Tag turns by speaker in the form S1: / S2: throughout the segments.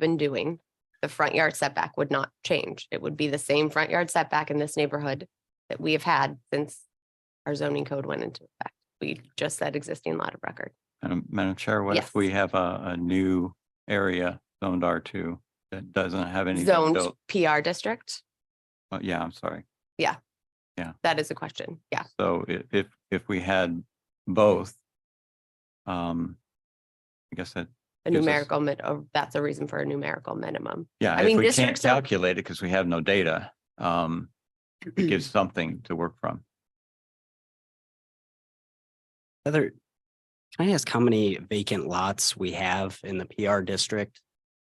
S1: been doing, the front yard setback would not change. It would be the same front yard setback in this neighborhood that we have had since our zoning code went into effect. We just said existing lot of record.
S2: Madam, Madam Chair, what
S1: Yes.
S2: if we have a, a new area zoned R two that doesn't have any? uh,
S1: Zoned PR district,
S2: Yeah, I'm sorry.
S1: that is a question. Yeah,
S2: So i- if, if we had both, um, I guess that,
S1: a
S2: Gives us-
S1: numerical min, oh, that's a reason for a numerical minimum.
S2: yeah,
S1: I
S2: if
S1: mean,
S2: we can't
S1: districts are-
S2: calculate it because we have no data, um, it gives something to work from.
S3: Heather, can I ask how many vacant lots we have in the PR district?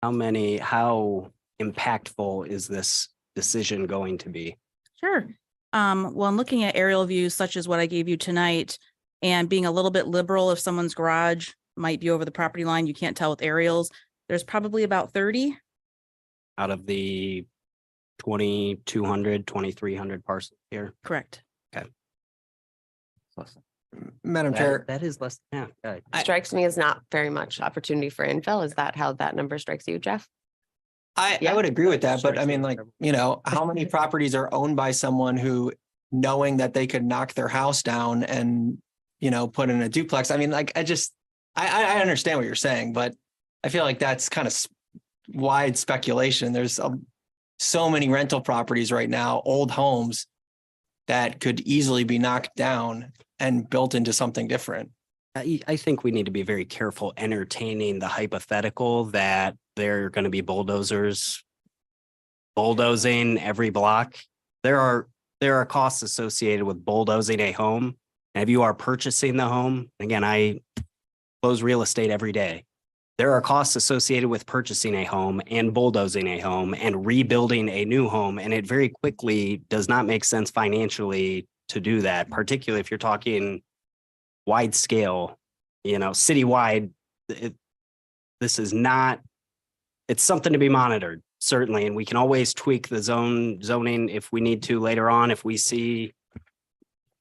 S3: How many, how impactful is this decision going to be?
S4: Sure. Um, well, I'm looking at aerial views such as what I gave you tonight and being a little bit liberal if someone's garage might be over the property line, you can't tell with aerials. There's probably about thirty.
S3: Out of the 2,200, 2,300 parcels here?
S4: Correct.
S5: Madam Chair,
S3: That is less, yeah. uh, right.
S1: Strikes me as not very much opportunity for infill. Is that how that number strikes you, Jeff?
S5: I, I
S1: yeah.
S5: would agree with that, but I
S3: Strikes me
S5: mean,
S3: as
S5: like,
S3: terrible.
S5: you know, how many properties are owned by someone who knowing that they could knock their house down and, you know, put in a duplex? I mean, like, I just, I, I, I understand what you're saying, but I feel like that's kind of wide speculation. There's um, so many rental properties right now, old homes that could easily be knocked down and built into something different.
S3: I, I think we need to be very careful entertaining the hypothetical that there are going to be bulldozers bulldozing every block. There are, there are costs associated with bulldozing a home. And if you are purchasing the home, again, I close real estate every day. There are costs associated with purchasing a home and bulldozing a home and rebuilding a new home. And it very quickly does not make sense financially to do that, particularly if you're talking wide scale, you know, citywide. It, this is not, it's something to be monitored, certainly, and we can always tweak the zone zoning if we need to later on, if we see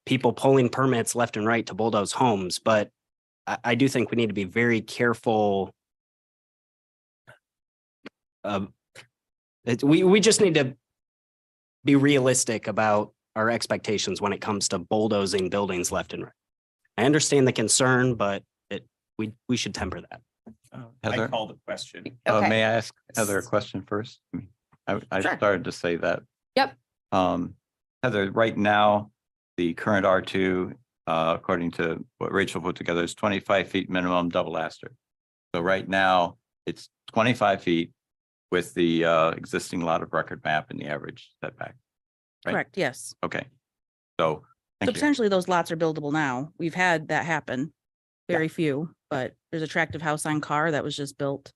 S3: people pulling permits left and right to bulldoze homes, but I, I do think we need to be very careful. Um, it, we, we just need to be realistic about our expectations when it comes to bulldozing buildings left and right. I understand the concern, but it, we, we should temper that.
S2: Heather?
S6: Oh, I call the question.
S2: Uh,
S1: Okay.
S2: may I ask Heather a question first? I mean, I, I
S1: Sure.
S2: started to say that.
S1: Yep.
S2: Um, Heather, right now, the current R two, uh, according to what Rachel put together is twenty-five feet minimum double aster. So right now, it's twenty-five feet with the, uh, existing lot of record map and the average setback. Right.
S4: Correct, yes.
S2: Okay. So,
S4: So
S2: thank you.
S4: potentially those lots are buildable now. We've had that happen. Very few, but there's a attractive house on Carr that was just built.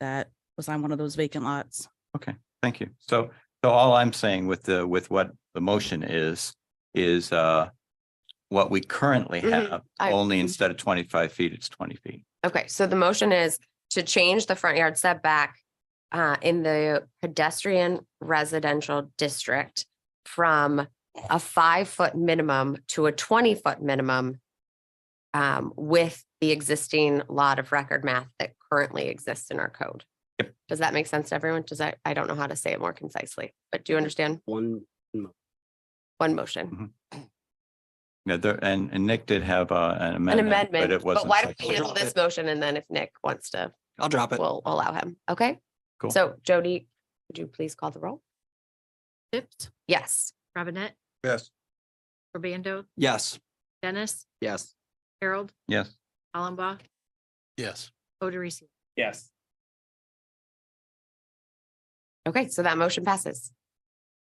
S4: That was on one of those vacant lots.
S2: Thank you. So, so all I'm saying with the, with what the motion is, is uh what we currently
S1: Mhm.
S2: have,
S1: I-
S2: only instead of twenty-five feet, it's twenty feet.
S1: Okay, so the motion is to change the front yard setback uh, in the pedestrian residential district from a five-foot minimum to a twenty-foot minimum um, with the existing lot of record math that currently exists in our code. Does that make sense to everyone? Does that, I don't know how to say it more concisely, but do you understand?
S3: One,
S1: One motion,
S2: Yeah, there, and, and Nick did have uh, an
S1: an
S2: amendment, but
S1: amendment,
S2: it
S1: but
S2: wasn't.
S1: why don't we
S2: seconded.
S1: handle this motion and then if Nick wants to
S5: I'll drop it.
S1: we'll allow him. Okay?
S2: Cool.
S1: So Jody, would you please call the roll?
S7: Pipped,
S1: Yes.
S7: Robinette,
S6: Yes.
S7: Urbando,
S5: Yes.
S7: Dennis,
S3: yes.
S7: Harold,
S2: Yes,
S7: Hollenbach,
S5: Yes.
S7: Oderici.
S6: Yes.
S1: Okay, so that motion passes.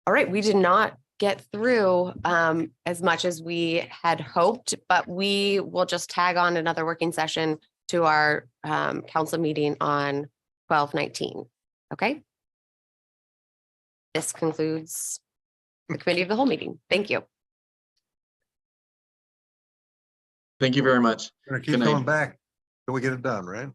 S1: All right, we did not get through um as much as we had hoped, but we will just tag on another working session to our um council meeting on twelve nineteen. Okay? This concludes the committee of the whole meeting. Thank you.
S8: Thank you very much.
S9: Gonna keep
S8: Good night.
S9: coming back till we get it done, right?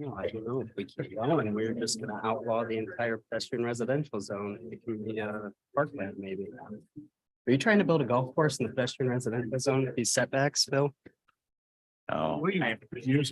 S3: No, I don't know if we keep going, we're just gonna outlaw the entire pedestrian residential zone, it can be a uh, parkland maybe. Are you trying to build a golf course in the pedestrian residential zone with these setbacks, Phil?
S10: Oh.
S3: Were you-